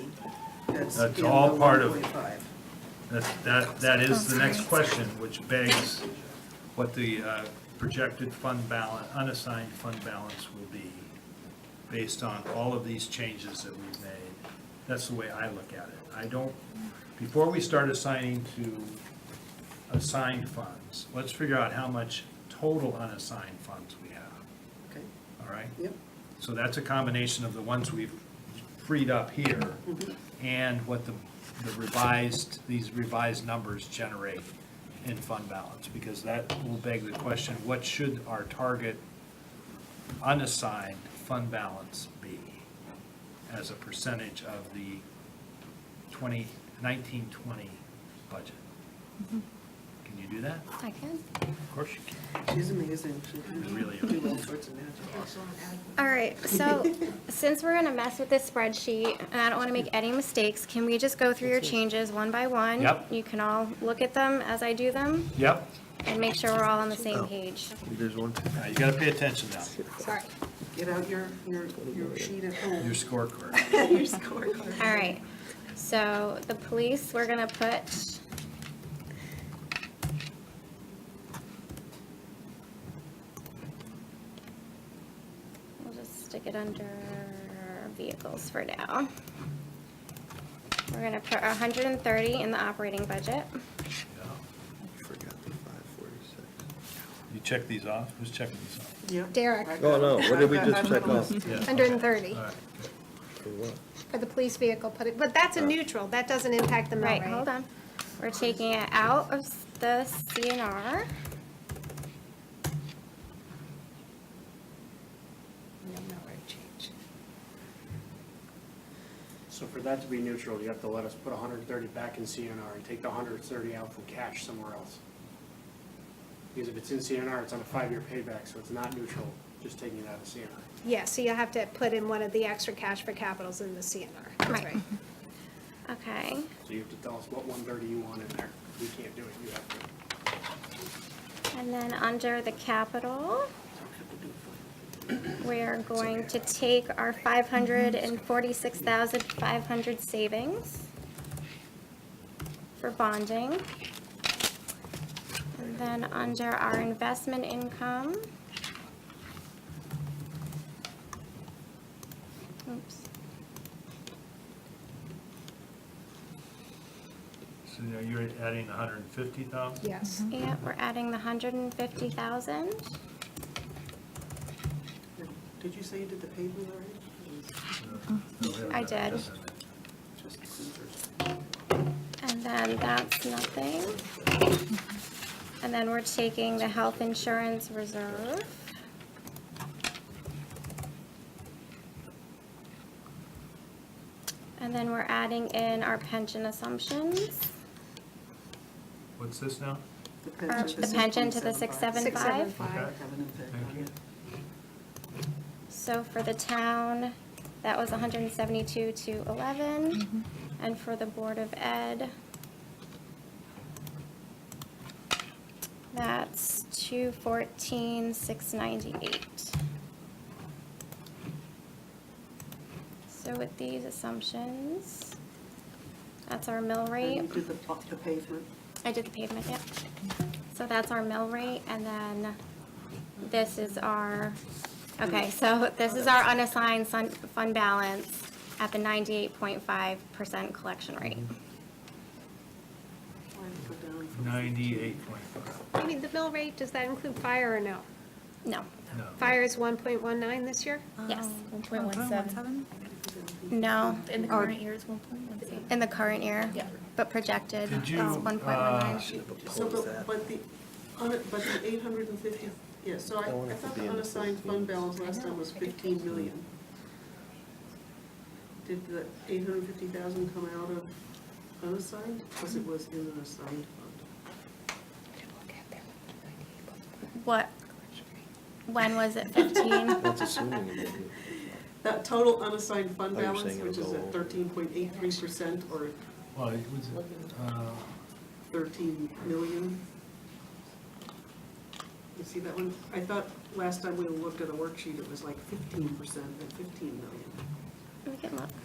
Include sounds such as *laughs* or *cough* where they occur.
that's That's in the all part of- 1.5. That's, that, that is the next question, which begs what the uh, projected fund balance, unassigned fund balance will be based on all of these changes that we've made. That's the way I look at it. I don't, before we start assigning to assigned funds, let's figure out how much total unassigned funds we have, Okay, all right? yep, So that's a combination of the ones we've freed up here and what the the revised, these revised numbers generate in fund balance. Because that will beg the question, what should our target unassigned fund balance be as a percentage of the 20, 19, 20 budget? Can you do that? I can. Mm-hmm. Of course you can. she's amazing, she can You really do are. all sorts of magic. All right, so since we're gonna mess with this spreadsheet, and I don't wanna make any mistakes, can we just go through your changes one by one? Yep. You can all look at them as I do them Yep, and make sure we're all on the same page. There's one. now you gotta pay attention now, Sorry. Get out your, your, your sheet at home, *laughs* your *laughs* scorecard. your scorecard. All right, so the police, we're gonna put. We'll just stick it under vehicles for now. We're gonna put hundred and thirty in the operating budget. Yeah. Forgot the five forty-six. You check these off, who's checking these off? Yep. Derek, Oh, no, what did we I've got- just I've check got a off? list. Yeah. hundred and thirty All right, good. For what? for the police vehicle, put it- but that's a neutral, that doesn't impact the mill Right, rate. hold on. We're taking it out of s- the CNR. No mill rate change. So for that to be neutral, you have to let us put 130 back in CNR and take the 130 out from cash somewhere else. Because if it's in CNR, it's on a five-year payback, so it's not neutral, just taking it out of CNR. Yeah, so you'll have to put in one of the extra cash for capitals in the CNR, that's Right. right. Okay, So you have to tell us what 130 you want in there. We can't do it, you have to. and then under the capital. We are going to take our five hundred and forty-six thousand five hundred savings for bonding. And then under our investment income. Oops, So now you're adding hundred and fifty thousand? Yes, yeah, we're adding the hundred and fifty thousand. Did you say you did the pavement already? I did. Just the scissors. And then that's nothing. And then we're taking the health insurance reserve. And then we're adding in our pension assumptions, What's this now? The or pension, Uh, the pension to the 6.75. 675. Have Okay. an impact Thank on you. it. So for the town, that was 172 to 11. And for the Board of Ed, that's 214, 698. So with these assumptions, that's our mill rate. And you did the pa- the pavement, I did the pavement, yep. So that's our mill rate, and then this is our, okay, so this is our unassigned sun- fund balance at the ninety-eight point five percent collection rate. why did it go down from? Ninety-eight point five, I mean, the mill rate, does that include fire or no? No, no. Fire is one point one nine this year? yes, One point one seven. no, Um, In the current year is one point one seven. in the current year. Yeah. But projected, Did it's you, one point one uh, nine. So, but, but the, on it- but the eight hundred and fifty, yeah, so I, I want I it to thought be the in the unassigned fund 15. balance last time was fifteen million. Did the eight hundred and fifty thousand come out of unassigned, because it was in an assigned fund? What, when was it *laughs* fifteen? That's assuming it would be. That total unassigned fund Oh, you're balance, saying it'll which is go at over. thirteen point eight three percent or Well, it was, uh, thirteen million. You see that one? I thought last time we looked at a worksheet, it was like fifteen percent and fifteen million. We can look.